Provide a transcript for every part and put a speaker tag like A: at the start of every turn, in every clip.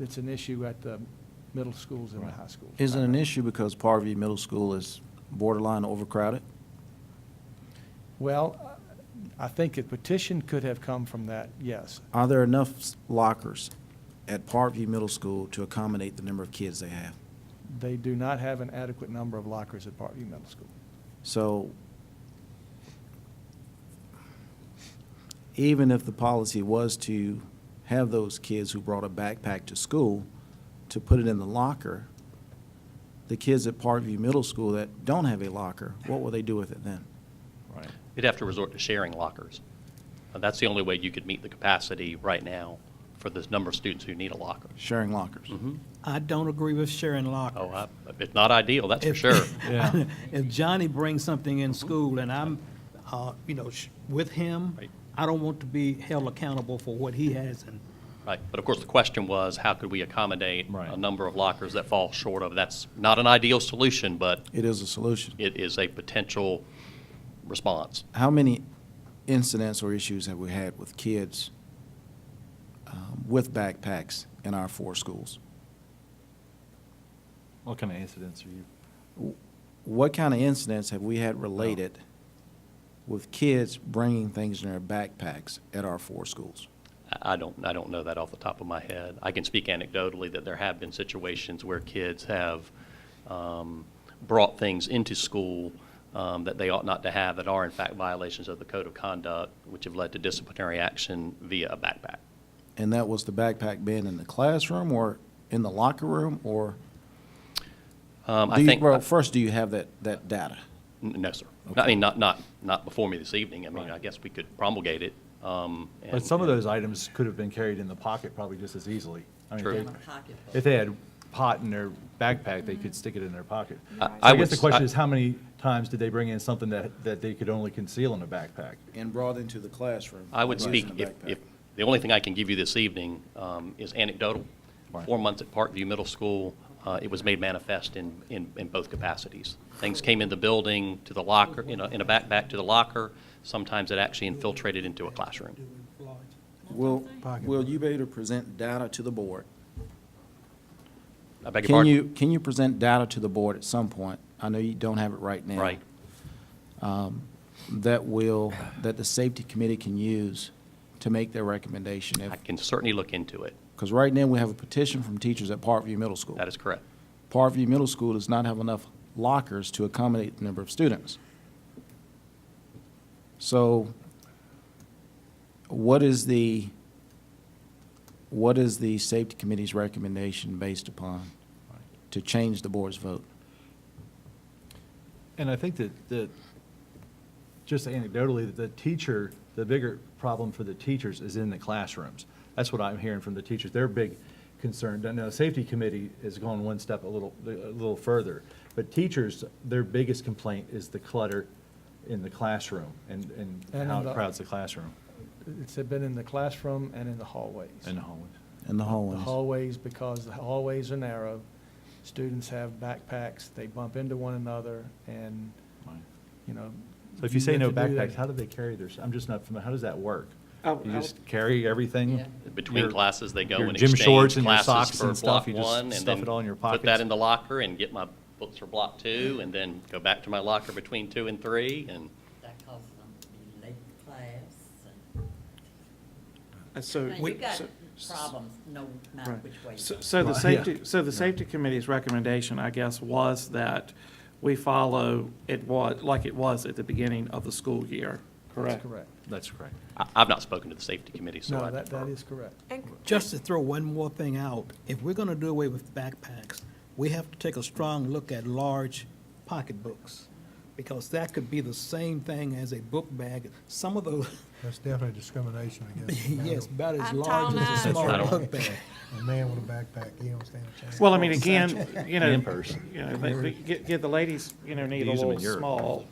A: It's an issue at the middle schools and the high schools. Uh,
B: Is it an issue because Parview Middle School is borderline overcrowded?
A: Well, I think a petition could have come from that, yes.
B: Are there enough s- lockers at Parkview Middle School to accommodate the number of kids they have?
A: They do not have an adequate number of lockers at Parkview Middle School.
B: So even if the policy was to have those kids who brought a backpack to school to put it in the locker, the kids at Parkview Middle School that don't have a locker, what will they do with it then?
A: Right.
C: You'd have to resort to sharing lockers. Uh, That's the only way you could meet the capacity right now for this number of students who need a locker.
B: Sharing lockers?
D: I don't agree with sharing lockers.
C: Oh, I- it's not ideal, that's for
D: If-
C: sure.
D: If Johnny brings something in school and I'm, uh, you know, sh- with him,
C: Right.
D: I don't want to be held accountable for what he has and
C: Right, but of course, the question was, how could we accommodate
E: Right.
C: a number of lockers that fall short of? That's not an ideal solution, but
B: It is a solution.
C: it is a potential response.
B: How many incidents or issues have we had with kids um, with backpacks in our four schools?
E: What kind of incidents are you?
B: What kind of incidents have we had related with kids bringing things in their backpacks at our four schools?
C: I- I don't, I don't know that off the top of my head. I can speak anecdotally that there have been situations where kids have um, brought things into school um, that they ought not to have, that are in fact violations of the code of conduct, which have led to disciplinary action via a backpack.
B: And that was the backpack being in the classroom or in the locker room or?
C: Um,
B: Do
C: I
B: you-
C: think,
B: Well,
C: n-
B: first, do you have that, that data?
C: no, sir. I mean, not, not, not before me this evening. I mean, I guess we could promulgate it. um, and-
E: But some of
C: and-
E: those items could have been carried in the pocket probably just as easily. I mean,
C: True.
E: they- If they had pot in their backpack, they could stick it in their pocket.
C: I-
E: So
C: I
E: I
C: would
E: guess the
C: s-
E: question
C: I-
E: is, how many times did they bring in something that, that they could only conceal in a backpack?
B: And brought into the classroom?
C: I would
B: versus
C: speak,
B: in the
C: if, if,
B: backpack?
C: the only thing I can give you this evening um, is anecdotal.
E: Right.
C: Four months at Parkview Middle School, uh, it was made manifest in, in, in both capacities. Things came in the building to the locker, in a, in a backpack to the locker. Sometimes it actually infiltrated into a classroom.
B: Will, will you be able to present data to the board
C: I beg your
B: Can
C: pardon?
B: you, can you present data to the board at some point? I know you don't have it right now.
C: Right.
B: That will, that the safety committee can use to make their recommendation.
C: I can certainly look into it.
B: Because right now, we have a petition from teachers at Parkview Middle School.
C: That is correct.
B: Parkview Middle School does not have enough lockers to accommodate the number of students. So what is the, what is the safety committee's recommendation based upon to change the board's vote?
E: And I think that, that, just anecdotally, that the teacher, the bigger problem for the teachers is in the classrooms. That's what I'm hearing from the teachers. They're big concerned. I know the safety committee has gone one step a little, a little further. But teachers, their biggest complaint is the clutter in the classroom and, and
A: And
E: how
A: in the-
E: it crowds the classroom
A: It's been in the classroom and in the hallways.
E: and the hallways.
B: In the
A: The
B: hallways.
A: hallways, because the hallways are narrow, students have backpacks, they bump into one another, and, you know.
E: So if you say
A: have
E: no
A: to do that.
E: backpacks, how do they carry their, s- I'm just not familiar, how does that work?
F: I-
E: You
F: I
E: just carry everything?
C: Between
E: Your-
C: classes, they go
E: your
C: and
E: gym
C: exchange
E: shorts and your
C: classes
E: socks
C: for
E: and stuff,
C: block
E: you just
C: one. and
E: stuff
C: then
E: it all in your
C: Put that
E: pockets.
C: in the locker and get my books for block two and then go back to my locker between two and three and.
G: That causes them to be late to class and.
F: And so.
G: Now,
F: we-
G: you got
F: so-
G: problems, no matter
F: Right.
G: which way. you
F: So
G: go.
F: so the
E: Right, yeah.
F: safety, so the safety committee's recommendation, I guess, was that we follow it was, like it was at the beginning of the school year,
A: That's
F: correct?
A: correct.
E: That's correct.
C: I- I've not spoken to the safety committee, so I
A: No, that, that
C: defer.
A: is correct.
D: just to throw one more thing out, if we're going to do away with backpacks, we have to take a strong look at large pocketbooks because that could be the same thing as a book bag. Some of those,
H: That's definitely discrimination against. a man
D: yes,
H: with-
D: about as
I: I'm
D: large as
C: talking
D: a
C: about-
D: small book bag.
H: A man with a backpack, he don't stand a chance.
F: Well, I mean, again, you know,
E: In person.
F: you know, they- they get, get the ladies, you know, need a
E: Use 'em in
F: little
E: Europe.
F: small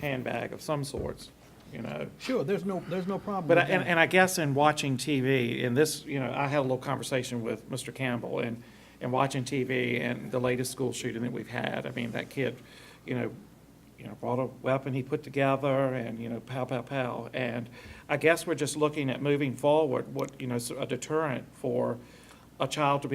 F: handbag of some sorts, you know?
D: Sure, there's no, there's no problem
F: But, I-
D: with
F: and,
D: that.
F: and I guess in watching TV, and this, you know, I had a little conversation with Mr. Campbell, and, and watching TV and the latest school shooting that we've had, I mean, that kid, you know, you know, brought a weapon he put together, and, you know, pow, pow, pow, and I guess we're just looking at moving forward, what, you know, s- a deterrent for a child to be